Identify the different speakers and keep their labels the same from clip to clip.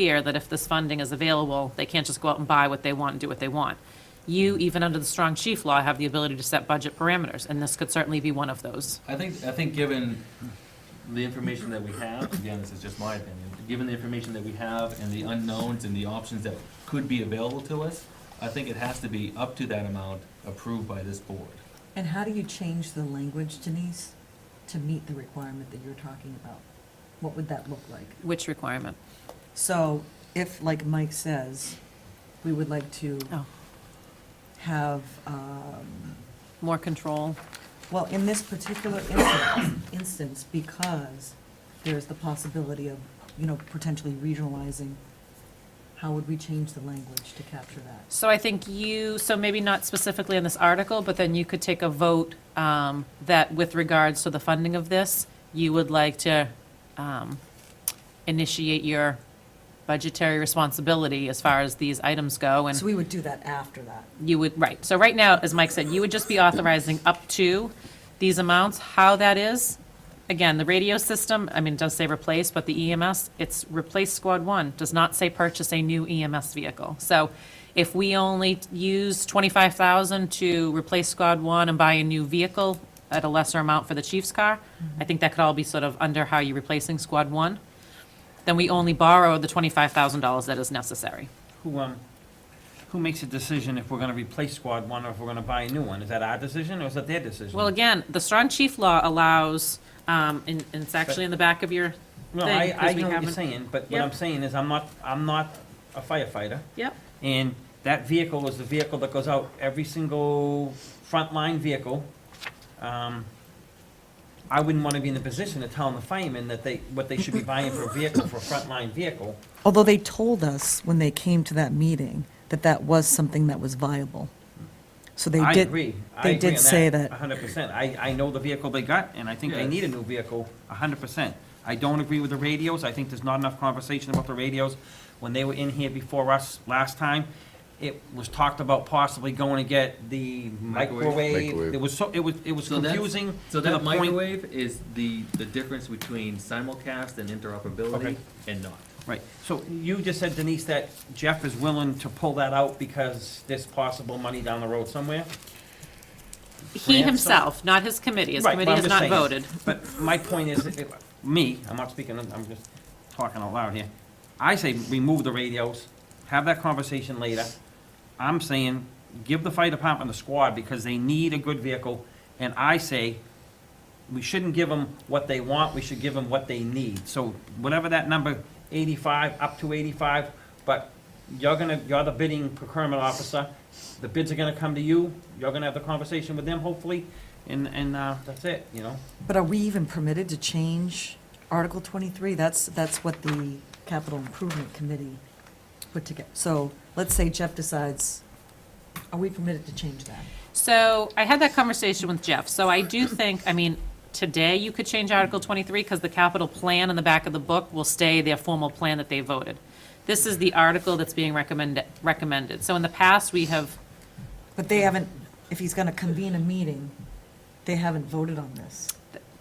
Speaker 1: clear that if this funding is available, they can't just go out and buy what they want and do what they want. You, even under the strong chief law, have the ability to set budget parameters, and this could certainly be one of those.
Speaker 2: I think, I think given the information that we have, again, this is just my opinion, given the information that we have and the unknowns and the options that could be available to us, I think it has to be up to that amount approved by this board.
Speaker 3: And how do you change the language, Denise, to meet the requirement that you're talking about? What would that look like?
Speaker 1: Which requirement?
Speaker 3: So if, like Mike says, we would like to
Speaker 1: Oh,
Speaker 3: have, um,
Speaker 1: more control.
Speaker 3: well, in this particular instance- instance, because there's the possibility of, you know, potentially regionalizing, how would we change the language to capture that?
Speaker 1: So I think you, so maybe not specifically in this article, but then you could take a vote um, that with regards to the funding of this, you would like to um, initiate your budgetary responsibility as far as these items go, and
Speaker 3: So we would do that after that.
Speaker 1: you would, right. So right now, as Mike said, you would just be authorizing up to these amounts. How that is, again, the radio system, I mean, it does say replace, but the EMS, it's replace squad one, does not say purchase a new EMS vehicle. So if we only use twenty-five thousand to replace squad one and buy a new vehicle at a lesser amount for the chief's car, I think that could all be sort of under how you're replacing squad one. Then we only borrow the twenty-five thousand dollars that is necessary.
Speaker 4: Who, um, who makes a decision if we're gonna replace squad one or if we're gonna buy a new one? Is that our decision or is that their decision?
Speaker 1: Well, again, the strong chief law allows, um, and, and it's actually in the back of your,
Speaker 4: No,
Speaker 1: thing,
Speaker 4: I,
Speaker 1: 'cause
Speaker 4: I
Speaker 1: we
Speaker 4: know what
Speaker 1: haven't-
Speaker 4: you're saying, but what
Speaker 1: Yeah.
Speaker 4: I'm saying is I'm not, I'm not a firefighter.
Speaker 1: yep,
Speaker 4: And that vehicle is the vehicle that goes out, every single frontline vehicle. Um, I wouldn't wanna be in the position of telling the firemen that they, what they should be buying for a vehicle, for a frontline vehicle.
Speaker 3: Although they told us when they came to that meeting that that was something that was viable. So they
Speaker 4: I
Speaker 3: did.
Speaker 4: agree. I
Speaker 3: they
Speaker 4: agree
Speaker 3: did
Speaker 4: on
Speaker 3: say that.
Speaker 4: A hundred percent. I, I know the vehicle they got, and I think they
Speaker 2: Yeah.
Speaker 4: need a new vehicle, a hundred percent. I don't agree with the radios. I think there's not enough conversation about the radios. When they were in here before us last time, it was talked about possibly going to get the
Speaker 2: Microwave.
Speaker 4: microwave.
Speaker 5: Microwave.
Speaker 4: It was so, it was, it was
Speaker 2: So that's-
Speaker 4: confusing
Speaker 2: So
Speaker 4: to the
Speaker 2: that
Speaker 4: point.
Speaker 2: microwave is the, the difference between simulcast and interoperability
Speaker 4: Okay.
Speaker 2: and not.
Speaker 4: Right. So you just said Denise that Jeff is willing to pull that out because there's possible money down the road somewhere?
Speaker 1: he
Speaker 4: Ransom.
Speaker 1: himself, not his committee, his
Speaker 4: Right, but
Speaker 1: committee has
Speaker 4: I'm just
Speaker 1: not
Speaker 4: saying-
Speaker 1: voted.
Speaker 4: But my point is, if- me, I'm not speaking, I'm just talking out loud here. I say remove the radios, have that conversation later. I'm saying, give the fire department the squad because they need a good vehicle. And I say, we shouldn't give them what they want, we should give them what they need. So whatever that number, eighty-five, up to eighty-five, but you're gonna, you're the bidding procurement officer. The bids are gonna come to you, you're gonna have the conversation with them hopefully, and, and, uh, that's it, you know?
Speaker 3: But are we even permitted to change Article 23? That's, that's what the Capital Improvement Committee put together. So let's say Jeff decides, are we permitted to change that?
Speaker 1: So I had that conversation with Jeff, so I do think, I mean, today you could change Article 23, because the capital plan in the back of the book will stay their formal plan that they voted. This is the article that's being recommended, recommended. So in the past, we have,
Speaker 3: But they haven't, if he's going to convene a meeting, they haven't voted on this.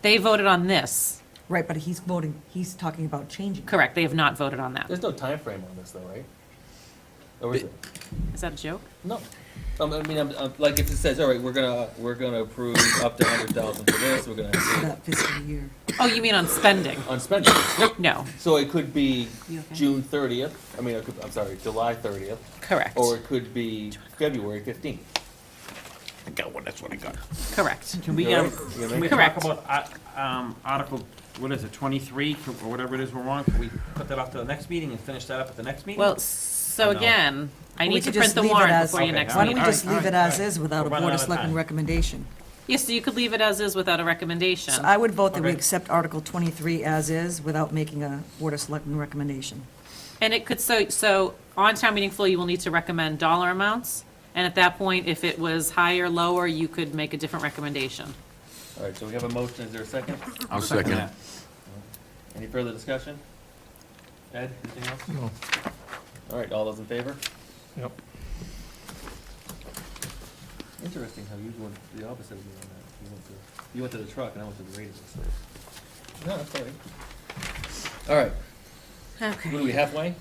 Speaker 1: they voted on this,
Speaker 3: Right, but he's voting, he's talking about changing. it.
Speaker 1: correct, they have not voted on that.
Speaker 6: There's no time frame on this though, right? Or is it?
Speaker 1: Is that a joke?
Speaker 6: No. Um, I mean, I'm, I'm, like if it says, all right, we're gonna, we're gonna approve up to hundred thousand for this, we're gonna
Speaker 3: For
Speaker 6: approve
Speaker 3: That fiscal year.
Speaker 1: Oh, you mean on spending?
Speaker 6: on spending.
Speaker 1: No,
Speaker 6: So it could be
Speaker 1: You okay?
Speaker 6: June thirtieth, I mean, it could, I'm sorry, July thirtieth,
Speaker 1: correct,
Speaker 6: or it could be February fifteenth.
Speaker 1: correct.
Speaker 4: Can we,
Speaker 6: You're
Speaker 4: um,
Speaker 6: right. You're
Speaker 4: can we
Speaker 6: right.
Speaker 4: talk
Speaker 1: Correct.
Speaker 4: about, uh, um, Article, what is it, twenty-three, or whatever it is we're on? Can we put that off to the next meeting and finish that up at the next meeting?
Speaker 1: Well, so
Speaker 4: Or no?
Speaker 1: again, I
Speaker 3: Well, we
Speaker 1: need to
Speaker 3: could just
Speaker 1: print the
Speaker 3: leave it
Speaker 1: warrant
Speaker 3: as-
Speaker 1: before your
Speaker 4: Okay,
Speaker 1: next
Speaker 4: all
Speaker 3: Why don't
Speaker 1: meeting.
Speaker 3: we just
Speaker 4: All right,
Speaker 3: leave it
Speaker 4: all
Speaker 3: as
Speaker 4: right.
Speaker 3: is without a
Speaker 4: We're running
Speaker 3: Board
Speaker 4: out
Speaker 3: of
Speaker 4: of
Speaker 3: Selectmen
Speaker 4: time.
Speaker 3: recommendation?
Speaker 1: Yes, so you could leave it as is without a recommendation.
Speaker 3: So I would vote that we
Speaker 4: Okay.
Speaker 3: accept Article 23 as is without making a Board of Selectmen recommendation.
Speaker 1: And it could, so, so on town meeting floor, you will need to recommend dollar amounts. And at that point, if it was higher or lower, you could make a different recommendation.
Speaker 6: All right, so we have a motion, is there a second?
Speaker 5: I'll second.
Speaker 4: that.
Speaker 6: Any further discussion? Ed, anything else? No. All right, all those in favor?
Speaker 5: Yep.
Speaker 6: Interesting how you went the opposite of me on that. You went to, you went to the truck and I went to the radio. so. No, that's all right. All right, what are
Speaker 1: Okay.
Speaker 6: we halfway?